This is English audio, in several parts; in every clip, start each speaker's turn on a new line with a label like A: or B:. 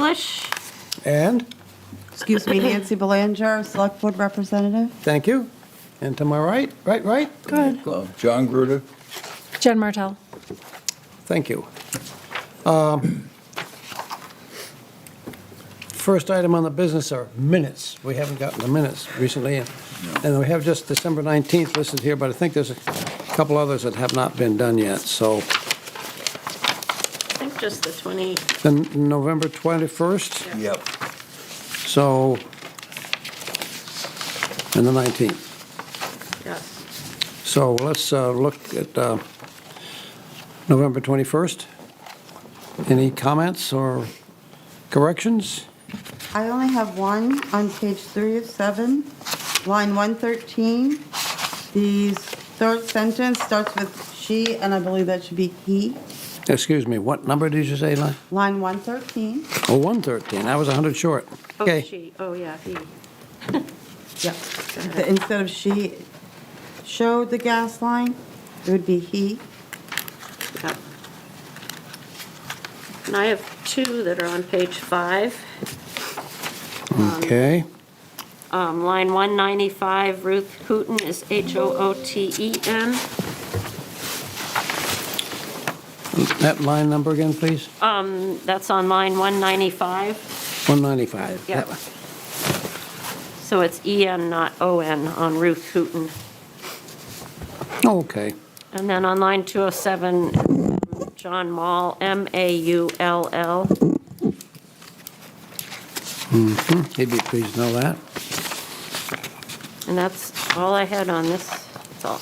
A: English.
B: And,
C: Excuse me, Nancy Belanger, Select Board Representative.
B: thank you. And to my right, right, right?
D: Good.
E: Well, John Gruder,
D: Jen Martell.
B: Thank you. Um, First item on the business are minutes. We haven't gotten the minutes recently. and- And we have just December 19th listed here, but I think there's a couple others that have not been done yet. So
A: I think just the 20,
B: then November 21st,
E: yep.
B: so, and the 19th.
A: yes.
B: So let's uh, look at uh, November 21st. Any comments or corrections?
C: I only have one on page three of seven, line 113. The third sentence starts with she, and I believe that should be he.
B: Excuse me, what number did you say, Lon?
C: Line 113.
B: Oh, 113, I was 100 short.
A: Oh,
B: Okay,
A: she, oh, yeah, he.
C: Yep. The- Instead of she showed the gas line, it would be he.
A: Yep. And I have two that are on page five.
B: okay,
A: Um, Line 195, Ruth Hooten is E H-O-O-T-E-N.
B: that line number again, please?
A: Um, That's on line 195.
B: 195.
A: Yep.
B: That one.
A: So it's E-N, not O-N, on Ruth Hooten.
B: Okay,
A: And then on line 207, John Mall, M-A-U-L-L.
B: Hmm. he'd be pleased to know that.
A: And that's all I had on this. That's all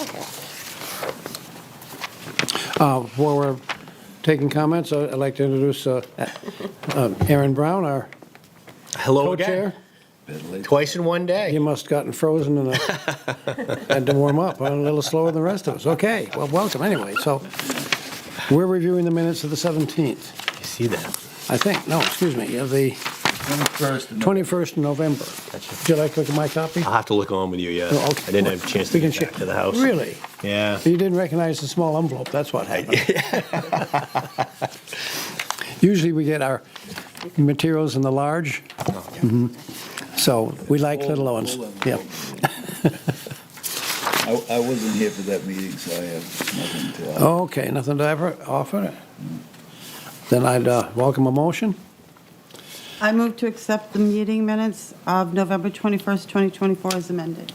A: I had.
B: Uh, While we're taking comments, I- I'd like to introduce uh, uh, Aaron Brown, our
F: Hello again.
B: co-chair.
F: Twice in one day.
B: You must have gotten frozen and uh, had to warm up, a little slower than the rest of us. Okay, well, welcome anyway. So we're reviewing the minutes of the 17th,
F: You see that?
B: I think, no, excuse me, of the
E: 21st. and-
B: 21st of November. Would you like to look at my copy?
F: I'll have to look on with you, yeah.
B: Oh, okay.
F: Uh, I didn't have a chance to
B: We can
F: get back
B: share.
F: to the house.
B: Really?
F: Yeah.
B: You didn't recognize the small envelope, that's what happened. Usually we get our materials in the large,
F: Oh,
B: Mhm. so we like little ones.
E: Full envelope.
B: Yeah,
E: I, I wasn't here for that meeting, so I have nothing to. uh,
B: okay, nothing to ever offer? Then I'd uh, welcome a motion.
C: I move to accept the meeting minutes of November 21st, 2024 as amended.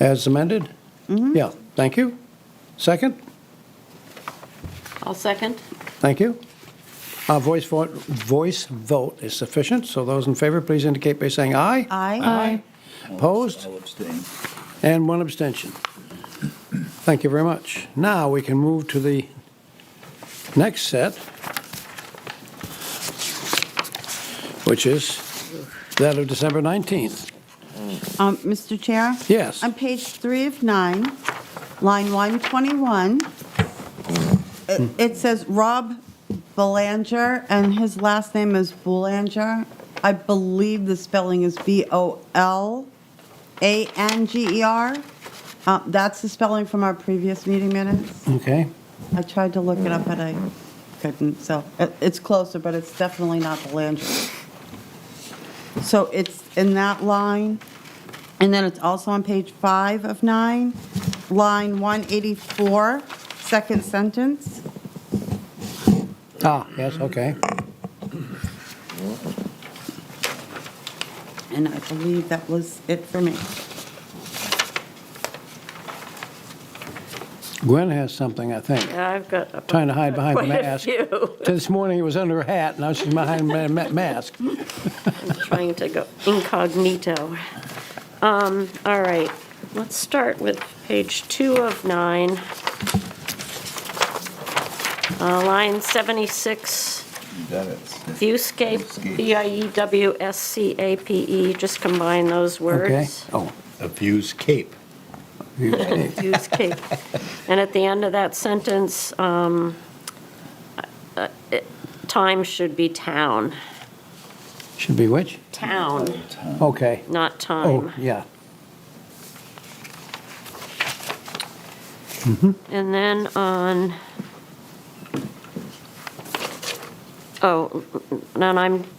B: As amended? Yeah, thank you. Second?
A: I'll second.
B: Thank you. Uh, Voice vote, voice vote is sufficient, so those in favor, please indicate by saying aye.
C: Aye.
B: Opposed?
E: I'll abstain.
B: And one abstention. Thank you very much. Now, we can move to the next set, which is that of December 19th.
C: Um, Mr. Chair?
B: Yes.
C: On page three of nine, line 121, it- it says Rob Belanger, and his last name is Boulanger. I believe the spelling is B-O-L-A-N-G-E-R. E Uh, That's the spelling from our previous meeting minutes.
B: Okay,
C: I tried to look it up, but I couldn't, so it- it's closer, but it's definitely not Belanger. So it's in that line, and then it's also on page five of nine, line 184, second sentence.
B: ah, yes, okay.
C: And I believe that was it for me.
B: Gwen has something, I think.
A: Yeah, I've got. a-
B: Trying to hide behind the
A: quite a
B: mask.
A: few.
B: This morning it was under her hat, now she's behind a ma- mask.
A: Trying to go incognito. Um, All right, let's start with page two of nine. Uh, Line 76,
E: You got it.
A: viewscape, E B-I-E-W-S-C-A-P-E, E. just combine those
B: Okay,
A: words.
B: oh.
F: Abuse Cape.
A: Viewscape. And at the end of that sentence, um, uh, it- time should be town.
B: Should be which?
A: Town,
B: Okay.
A: not
B: Oh,
A: time.
B: yeah.
A: And then on, oh, then I'm